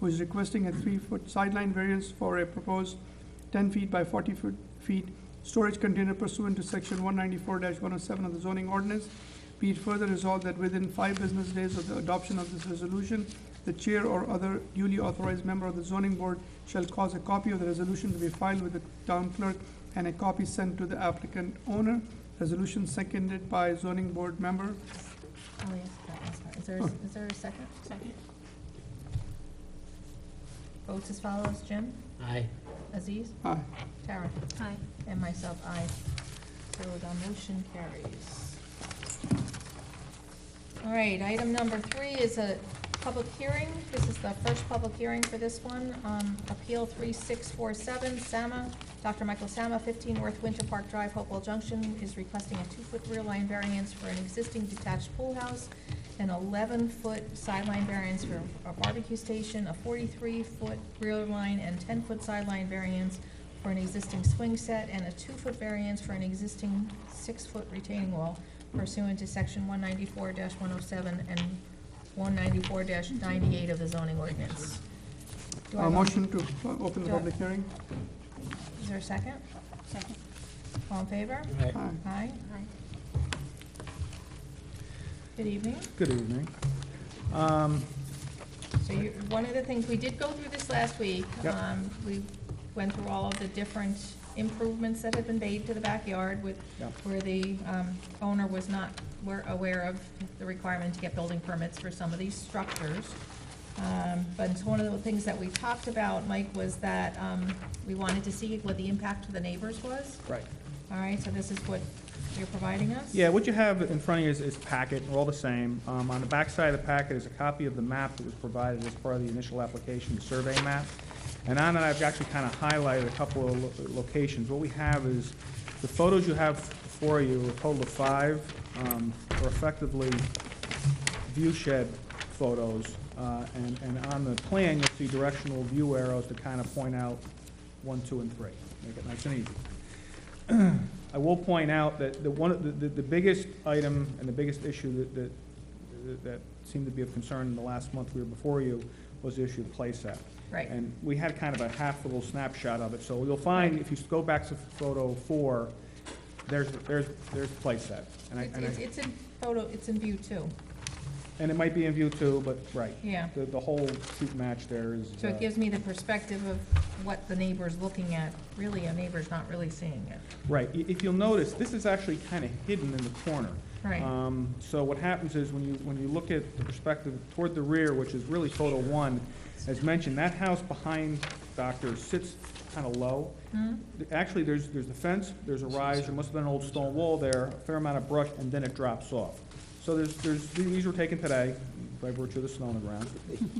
who is requesting a three-foot sideline variance for a proposed ten feet by forty foot feet storage container pursuant to section one ninety-four one oh seven of the zoning ordinance. Be it further resolved that within five business days of the adoption of this resolution, the chair or other duly authorized member of the zoning board shall cause a copy of the resolution to be filed with the town clerk and a copy sent to the applicant owner. Resolution seconded by zoning board member. Oh, yes, that was her. Is there, a- is there a second? Second. Votes as follows, Jim, Aye. Aziz, Aye. Tara, Aye. and myself, aye. So the motion carries. All right, item number three is a public hearing. This is the first public hearing for this one. Um, Appeal 3647, Sama, Dr. Michael Sama, 15 North Winter Park Drive, Hopewell Junction, is requesting a two-foot rear line variance for an existing detached pool house, an 11-foot sideline variance for a barbecue station, a 43-foot rear line and 10-foot sideline variance for an existing swing set, and a two-foot variance for an existing six-foot retaining wall pursuant to section one ninety-four one oh seven and one ninety-four ninety-eight of the zoning ordinance. Do I Uh, have a- motion to uh, open the Do I- public hearing. Is there a second? Second. All in favor? Aye. Aye. Aye. Aye. Good evening. Good evening. Um, So you, one of the things, we did go through this last week. Yep. Um, We went through all of the different improvements that had been made to the backyard with, Yep. where the um, owner was not, were aware of the requirement to get building permits for some of these structures. Um, But it's one of the things that we talked about, Mike, was that um, we wanted to see what the impact to the neighbors was. Right. All right, so this is what you're providing us? Yeah, what you have in front of you is, is packet, we're all the same. Um, on the back side of the packet is a copy of the map that was provided as part of the initial application, the survey map. And on that, I've actually kind of highlighted a couple of lo- locations. What we have is, the photos you have for you, a total of five, um, are effectively view shed photos. Uh, and, and on the plan, you'll see directional view arrows to kind of point out one, two, and three. Make it nice and easy. I will point out that the one, of the, the the biggest item and the biggest issue that, that, that seemed to be of concern in the last month we were before you was the issue of playset. Right. And we had kind of a half little snapshot of it, so you'll find, if you go back to photo four, there's, there's, there's playset. And I, It's- and It's, I, it's in photo, it's in view too, and it might be in view two, but, right. yeah. The, the whole shoot match there is. So uh, it gives me the perspective of what the neighbor's looking at, really, a neighbor's not really seeing it. Right, I- if you'll notice, this is actually kind of hidden in the corner. Right. Um, So what happens is when you, when you look at the perspective toward the rear, which is really photo one, as mentioned, that house behind Doctor sits kind of low. Hmm? Th- Actually, there's, there's the fence, there's a rise, there must have been an old stone wall there, a fair amount of brush, and then it drops off. So there's, there's, these were taken today by virtue of the snow on the ground.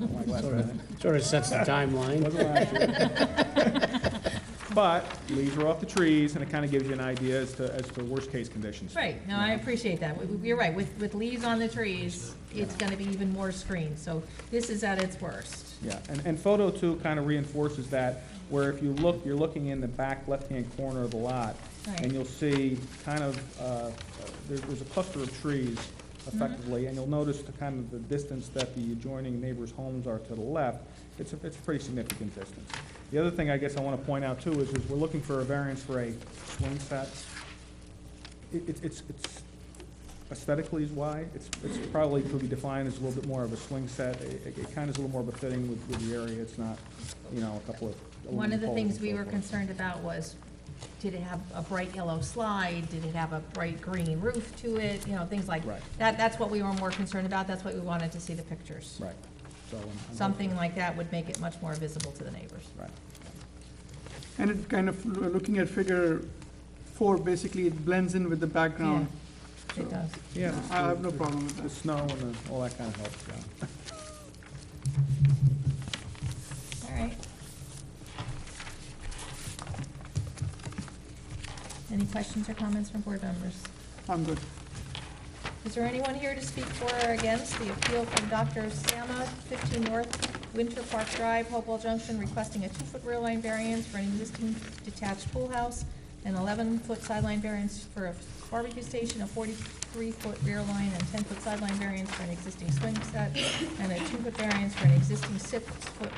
Don't like last minute. Sort of sets the timeline. Wasn't last year. But leaves are off the trees, and it kind of gives you an idea as to, as to worst-case conditions. Right, no, I appreciate that, We- we- you're right, with, with leaves on the trees, it's gonna be even more screened, so this is at its worst. Yeah, and, and photo two kind of reinforces that, where if you look, you're looking in the back left-hand corner of the lot, Right. and you'll see kind of, uh, there's, there's a cluster of trees effectively, and you'll notice the kind of the distance that the adjoining neighbors' homes are to the left, it's a, it's a pretty significant distance. The other thing I guess I want to point out too is, is we're looking for a variance for a swing set. It, it's- it's, it's aesthetically is why, it's, it's probably could be defined as a little bit more of a swing set. It, it kind of is a little more befitting with, with the area, it's not, you know, a couple of. One of the aluminum poles things and we so were forth. concerned about was, did it have a bright yellow slide, did it have a bright green roof to it, you know, things like. Right. That, that's what we were more concerned about, that's what we wanted to see the pictures. Right, so. um, I'm- I'm- Something like that would make it much more visible to the neighbors. Right. And it kind of, loo- looking at figure four, basically it blends in with the background. It does. Yeah. I have no problem with The that. snow and the- all that kind of helps, yeah. All right. Any questions or comments from board members? I'm good. Is there anyone here to speak for or against the appeal from Dr. Sama, 15 North Winter Park Drive, Hopewell Junction, requesting a two-foot rear line variance for an existing detached pool house, an 11-foot sideline variance for a barbecue station, a 43-foot rear line and 10-foot sideline variance for an existing swing set, and a two-foot variance for an existing six-foot